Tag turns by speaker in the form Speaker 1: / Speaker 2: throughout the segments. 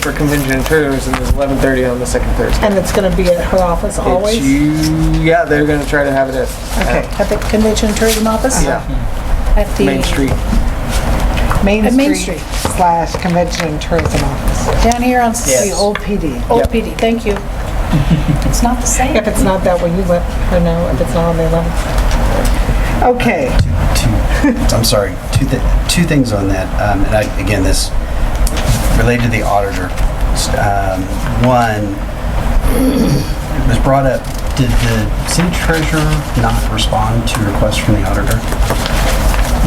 Speaker 1: for convention and tournaments, and there's 11:30 on the second Thursday.
Speaker 2: And it's gonna be at her office always?
Speaker 1: It's you, yeah, they're gonna try to have it at,
Speaker 2: Okay, at the Convention and Tourism Office?
Speaker 1: yeah,
Speaker 2: At the
Speaker 1: Main Street.
Speaker 2: At Main
Speaker 3: Main Street
Speaker 2: Street,
Speaker 3: slash Convention and Tourism Office,
Speaker 2: down here on
Speaker 1: Yes.
Speaker 2: the
Speaker 3: the old PD.
Speaker 2: old PD, thank you. It's not the same. If it's not that, will you let her know if it's not on the 11th?
Speaker 3: Okay,
Speaker 4: two, I'm sorry, two, th- two things on that. Um, and I, again, this related to the auditor. Um, one, it was brought up, did the city treasurer not respond to requests from the auditor?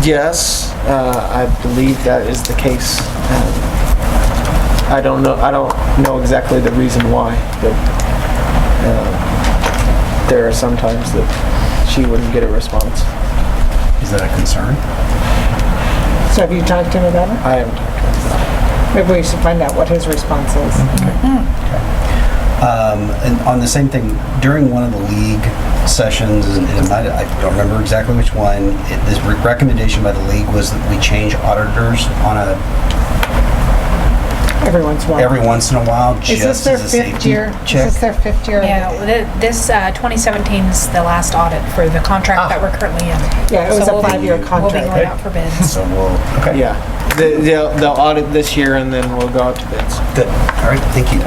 Speaker 1: Yes, uh, I believe that is the case. Um, I don't know, I don't know exactly the reason why, but um, there are some times that she wouldn't get a response.
Speaker 4: Is that a concern?
Speaker 2: So have you talked to him about it?
Speaker 1: I haven't talked to her.
Speaker 2: Maybe we should find out what his response is.
Speaker 4: Mm-hmm. Um, and on the same thing, during one of the league sessions, and it might, I don't remember exactly which one, it, this re- recommendation by the league was that we change auditors on a,
Speaker 2: Everyone's one.
Speaker 4: every once in a while,
Speaker 2: Is this
Speaker 4: just
Speaker 2: their
Speaker 4: as a
Speaker 2: fifth
Speaker 4: safety
Speaker 2: year?
Speaker 4: check.
Speaker 2: Is this their fifth year?
Speaker 5: Yeah, well, thi- this uh, 2017 is the last audit for the contract that we're currently in.
Speaker 2: Ah. Yeah, it was
Speaker 5: So
Speaker 2: a
Speaker 5: we'll be-
Speaker 2: five-year
Speaker 5: We'll be
Speaker 2: contract.
Speaker 5: going out for bids.
Speaker 4: So we'll, okay.
Speaker 1: Yeah, They- they'll, they'll audit this year and then we'll go out to bids.
Speaker 4: Good. All right, thank you.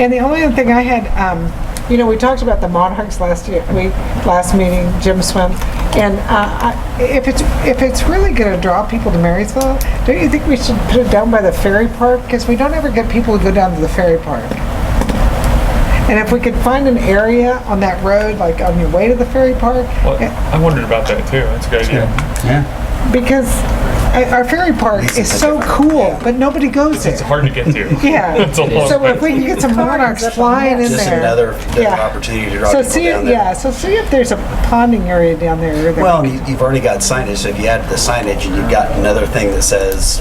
Speaker 3: and the only other thing I had, um,
Speaker 2: You know, we talked about the Monarchs last year, we, last meeting, Jim Swim. And uh, I- if it's, if it's really going to draw people to Marysville, don't you think we should put it down by the ferry park? Because we don't ever get people to go down to the ferry park. And if we could find an area on that road, like on your way to the ferry park,
Speaker 6: Well, I wondered about that too. That's a good idea.
Speaker 4: Yeah.
Speaker 2: because uh, our ferry park is so cool, but nobody goes
Speaker 6: It's
Speaker 2: there.
Speaker 6: hard to get to.
Speaker 2: Yeah.
Speaker 6: It's a long
Speaker 2: So if
Speaker 6: way.
Speaker 2: we could get some monarchs flying in there.
Speaker 4: Just another, another
Speaker 2: Yeah.
Speaker 4: opportunity to draw
Speaker 2: So
Speaker 4: people
Speaker 2: see,
Speaker 4: down there.
Speaker 2: yeah, so see if there's a ponding area down there. that-
Speaker 4: Well, and you- you've already got signage, so if you add the signage and you've got another thing that says,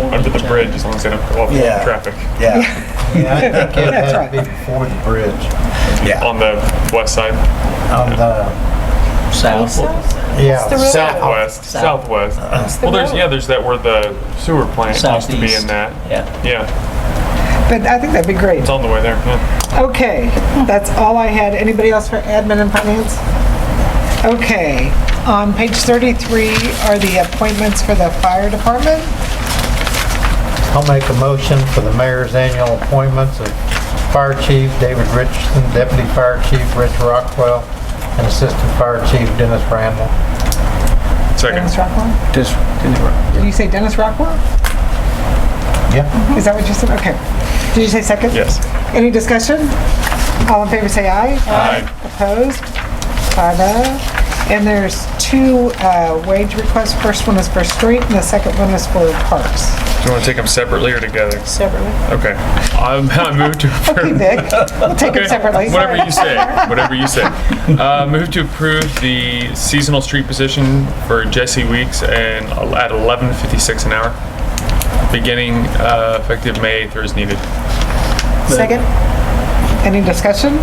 Speaker 6: Under the bridge is what's gonna off
Speaker 4: Yeah.
Speaker 6: traffic
Speaker 4: yeah,
Speaker 7: Yeah, I think it
Speaker 2: That's
Speaker 7: had to be before the bridge,
Speaker 4: yeah,
Speaker 6: on the west side,
Speaker 4: Um,
Speaker 7: on the,
Speaker 8: South,
Speaker 7: yeah.
Speaker 6: southwest, southwest.
Speaker 2: Uh,
Speaker 6: Well, there's, yeah, there's that where the sewer plant has to be in
Speaker 8: Southeast.
Speaker 6: that.
Speaker 8: yeah.
Speaker 6: Yeah,
Speaker 2: But I think that'd be great.
Speaker 6: it's on the way there. yeah.
Speaker 2: Okay, that's all I had. Anybody else for admin and finance?
Speaker 3: okay, on page 33 are the appointments for the fire department.
Speaker 7: I'll make a motion for the mayor's annual appointments of Fire Chief David Richardson, Deputy Fire Chief Rich Rockwell, and Assistant Fire Chief Dennis Randall.
Speaker 2: Dennis
Speaker 6: Second,
Speaker 2: Rockwell?
Speaker 1: Just, interrupt.
Speaker 2: Did you say Dennis Rockwell? Mm-hmm.
Speaker 7: Yeah.
Speaker 2: Is that what you said? Okay. Did you say second?
Speaker 6: yes.
Speaker 2: Any discussion? All in favor, say aye.
Speaker 6: Aye.
Speaker 2: Opposed? Five oh. And there's two uh, wage requests. First one is for street and the second one is for parks.
Speaker 6: Do you want to take them separately or together?
Speaker 2: Separately.
Speaker 6: Okay. I'm, I moved to
Speaker 2: Okay,
Speaker 6: approve.
Speaker 2: Vic, we'll take
Speaker 6: Okay,
Speaker 2: them separately.
Speaker 6: Whatever you say, whatever you say. Uh, move to approve the seasonal street position for Jesse Weeks and at 11:56 an hour, beginning uh, effective May 8th or as needed.
Speaker 2: Second. Any discussion?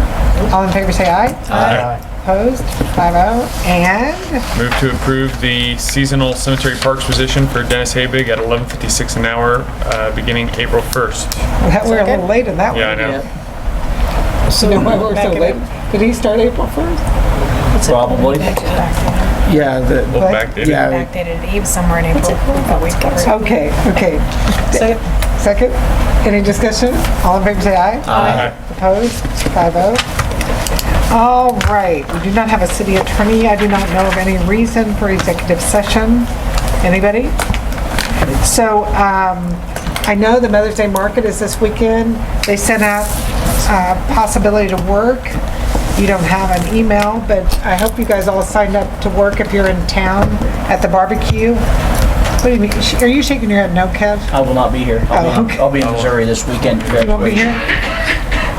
Speaker 2: All in favor, say aye. Aye. Opposed? Five oh. And
Speaker 6: Move to approve the seasonal cemetery parks position for Dennis Habig at 11:56 an hour, uh, beginning April 1st.
Speaker 2: that- we're a little late in that one.
Speaker 6: Yeah, I know.
Speaker 2: So why we're so late? Did he start April 1st?
Speaker 8: Probably.
Speaker 1: yeah, the,
Speaker 6: We'll
Speaker 2: What?
Speaker 6: backdate it.
Speaker 1: yeah.
Speaker 5: Backdated, it. he was somewhere in April. but we covered it.
Speaker 2: Okay, okay. Second. Any discussion? All in favor, say aye.
Speaker 6: Aye.
Speaker 2: Opposed? Five oh. All right, we do not have a city attorney. I do not know of any reason for executive session. Anybody? So, um, I know the Mother's Day Market is this weekend. They sent out, uh, possibility to work. You don't have an email, but I hope you guys all signed up to work if you're in town at the barbecue. What do you mean? Are you shaking your head no, Kev?
Speaker 8: I will not be here.
Speaker 2: Oh,
Speaker 8: I'll be,
Speaker 2: okay.
Speaker 8: I'll be in Missouri this weekend. for
Speaker 2: You won't be
Speaker 8: graduation.
Speaker 2: here?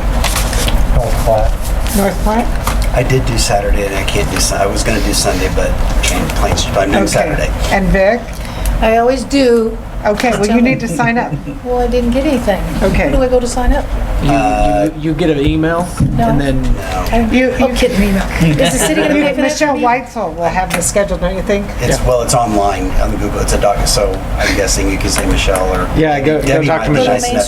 Speaker 4: Don't clap.
Speaker 2: North Platte?
Speaker 4: I did do Saturday and I can't do, Sun- I was gonna do Sunday, but changed plans, but I'm doing
Speaker 2: Okay.
Speaker 4: Saturday.
Speaker 2: And Vic?
Speaker 3: I always do,
Speaker 2: Okay, well, you need to sign up.
Speaker 3: Well, I didn't get anything.
Speaker 2: Okay.
Speaker 3: Where do I go to sign up?
Speaker 1: You- You, you get an email and then
Speaker 2: You,
Speaker 3: Oh, kidding me, no.
Speaker 5: Is the city going to pay for that?
Speaker 2: Michelle
Speaker 5: Jeremy?
Speaker 2: Weitzel will have this scheduled, don't you think?
Speaker 4: It's, well, it's online on Google, it's a doc, so I'm guessing you can say Michelle or.
Speaker 1: Yeah, go- go
Speaker 4: Debbie
Speaker 1: talk
Speaker 4: might
Speaker 1: to
Speaker 4: be
Speaker 1: Michelle.
Speaker 4: nice enough